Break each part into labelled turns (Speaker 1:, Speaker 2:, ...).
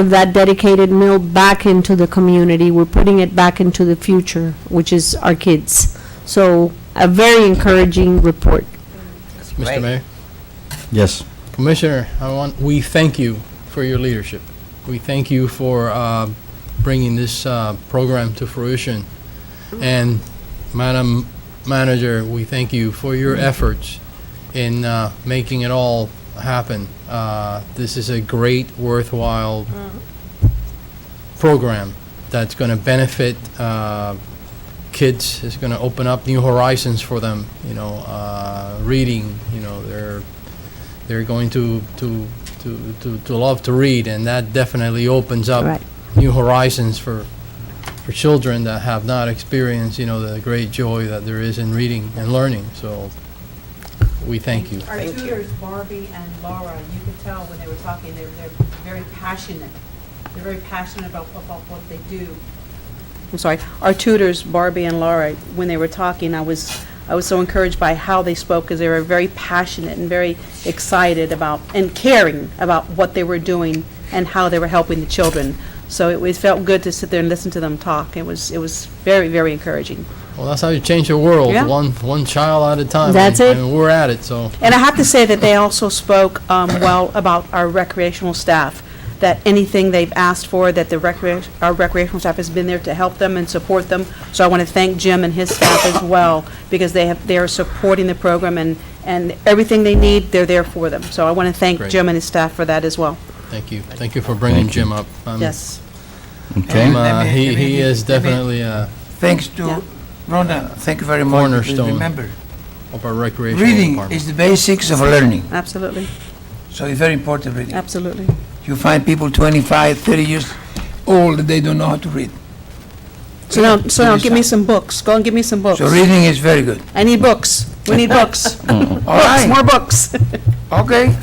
Speaker 1: of that dedicated mill back into the community. We're putting it back into the future, which is our kids. So a very encouraging report.
Speaker 2: Mr.
Speaker 3: Right.
Speaker 2: Mayor,
Speaker 4: Yes.
Speaker 2: Commissioner, I want, we thank you for your leadership. We thank you for uh, bringing this uh, program to fruition. And Madam Manager, we thank you for your efforts in uh, making it all happen. Uh, This is a great worthwhile program that's going to benefit uh, kids, it's going to open up new horizons for them, you know, uh, reading, you know, their they're going to, to, to, to, to love to read, and that definitely opens up
Speaker 1: Right.
Speaker 2: new horizons for, for children that have not experienced, you know, the great joy that there is in reading and learning, so we thank you.
Speaker 5: Our
Speaker 3: Thank you.
Speaker 5: tutors, Barbie and Laura, you could tell when they were talking, they're, they're very passionate. They're very passionate about, about what they do. I'm sorry, our tutors, Barbie and Laura, when they were talking, I was, I was so encouraged by how they spoke because they were very passionate and very excited about, and caring about what they were doing and how they were helping the children. So it was, felt good to sit there and listen to them talk. It was, it was very, very encouraging.
Speaker 2: Well, that's how you change the world,
Speaker 5: Yeah.
Speaker 2: one, one child at a time.
Speaker 1: That's
Speaker 2: and-
Speaker 1: it.
Speaker 2: And we're at it, so.
Speaker 5: And I have to say that they also spoke um, well about our recreational staff, that anything they've asked for, that the recreation, our recreational staff has been there to help them and support them. So I want to thank Jim and his staff as well, because they have, they are supporting the program and, and everything they need, they're there for them. So I want to thank
Speaker 2: Great.
Speaker 5: Jim and his staff for that as well.
Speaker 2: Thank you, thank you for bringing Jim up.
Speaker 3: Um,
Speaker 2: I'm-
Speaker 5: Yes.
Speaker 4: Okay.
Speaker 2: I'm, uh,
Speaker 3: Let me-
Speaker 2: He,
Speaker 3: let me-
Speaker 2: he is
Speaker 3: let me-
Speaker 2: definitely uh,
Speaker 3: Thanks
Speaker 5: Yeah.
Speaker 3: to Rhonda, thank you very much. because
Speaker 2: Cornerstone.
Speaker 3: Remember,
Speaker 2: of our recreational
Speaker 3: reading
Speaker 2: department.
Speaker 3: is the basics of learning,
Speaker 5: Absolutely,
Speaker 3: so it's very important reading.
Speaker 5: absolutely.
Speaker 3: You find people 25, 30 years old, they don't know how to read.
Speaker 5: So now, so now give me some books. Go and give me some books.
Speaker 3: So reading is very good.
Speaker 5: I need books. We need books.
Speaker 3: All
Speaker 5: Books,
Speaker 3: right,
Speaker 5: more books.
Speaker 3: okay.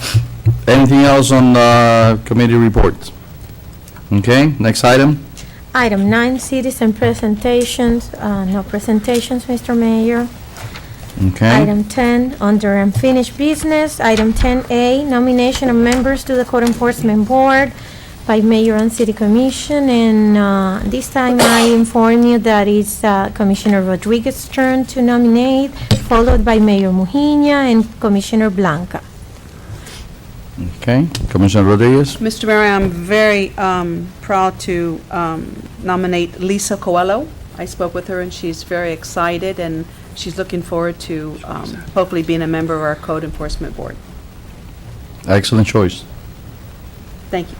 Speaker 4: Anything else on the committee report? Okay, next item.
Speaker 6: Item nine, citizen presentations, Uh, no presentations, Mr. Mayor.
Speaker 4: Okay.
Speaker 6: Item 10, under unfinished business, item 10A, nomination of members to the Code Enforcement Board by Mayor and City Commission, and uh, this time I inform you that it's uh, Commissioner Rodriguez's turn to nominate, followed by Mayor Mujina and Commissioner Blanca.
Speaker 4: Okay, Commissioner Rodriguez.
Speaker 5: Mr. Mayor, I'm very um, proud to um, nominate Lisa Coelho. I spoke with her, and she's very excited, and she's looking forward to um, hopefully being a member of our Code Enforcement Board.
Speaker 4: Excellent choice.
Speaker 5: Thank you.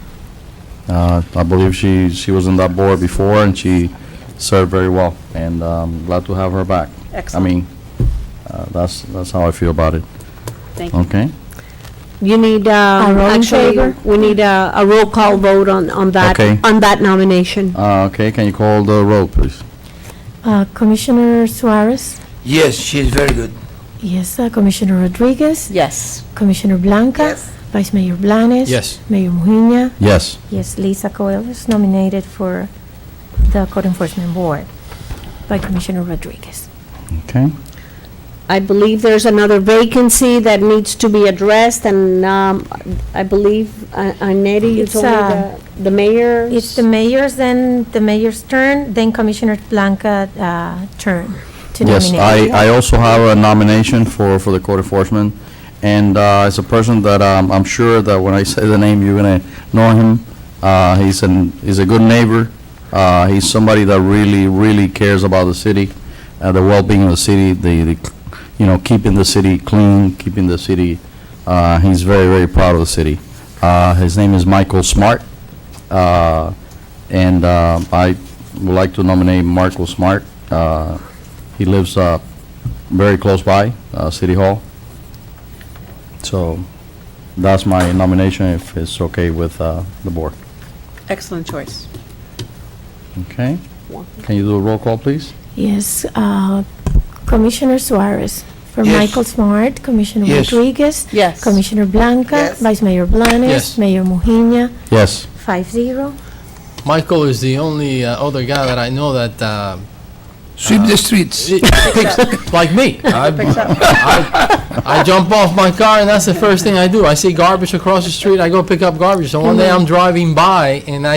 Speaker 4: Uh, I believe she, she was on that board before and she served very well, and um, glad to have her back.
Speaker 5: Excellent.
Speaker 4: I mean, uh, that's, that's how I feel about it.
Speaker 5: Thank you.
Speaker 4: Okay?
Speaker 1: You need,
Speaker 6: A
Speaker 1: um,
Speaker 6: roll in
Speaker 1: actually,
Speaker 6: favor?
Speaker 1: we need a a roll call vote on on that,
Speaker 4: Okay.
Speaker 1: on that nomination.
Speaker 4: Uh, Okay, can you call the roll, please?
Speaker 6: Uh, Commissioner Suarez?
Speaker 3: Yes, she is very good.
Speaker 6: Yes. uh, Commissioner Rodriguez?
Speaker 5: Yes.
Speaker 6: Commissioner Blanca? Vice Mayor Blanes?
Speaker 2: Yes.
Speaker 6: Mayor Mujina?
Speaker 4: Yes.
Speaker 6: Yes, Lisa Coelho is nominated for the Code Enforcement Board by Commissioner Rodriguez.
Speaker 4: Okay.
Speaker 1: I believe there's another vacancy that needs to be addressed, and um, I believe, uh, Annette, you
Speaker 6: It's,
Speaker 1: told me
Speaker 6: uh,
Speaker 1: the- the mayor.
Speaker 6: It's the mayor's, then the mayor's turn, then Commissioner Blanca uh, turn to nominate.
Speaker 4: Yes, I, I also have a nomination for, for the code enforcement, and uh, it's a person that um, I'm sure that when I say the name, you're gonna know him. Uh, He's an, he's a good neighbor, Uh, he's somebody that really, really cares about the city, uh, the well-being of the city, the, the, you know, keeping the city clean, keeping the city, uh, he's very, very proud of the city. Uh, His name is Michael Smart, Uh, and uh, I would like to nominate Michael Smart uh, he lives uh, very close by, uh, City Hall. So that's my nomination, if it's okay with uh, the board.
Speaker 5: Excellent choice.
Speaker 4: Okay? Can you do a roll call, please?
Speaker 6: Yes, uh, Commissioner Suarez. For
Speaker 3: Yes.
Speaker 6: Michael Smart, Commissioner
Speaker 3: Yes.
Speaker 6: Rodriguez.
Speaker 5: Yes.
Speaker 6: Commissioner Blanca.
Speaker 3: Yes.
Speaker 6: Vice Mayor
Speaker 2: Yes.
Speaker 6: Blanes. Mayor Mujina,
Speaker 4: Yes.
Speaker 6: five zero.
Speaker 2: Michael is the only uh, other guy that I know that uh,
Speaker 3: Sweep the streets.
Speaker 2: It picks- Like me. I I- I jump off my car, and that's the first thing I do. I see garbage across the street, I go pick up garbage. So one day I'm driving by, and I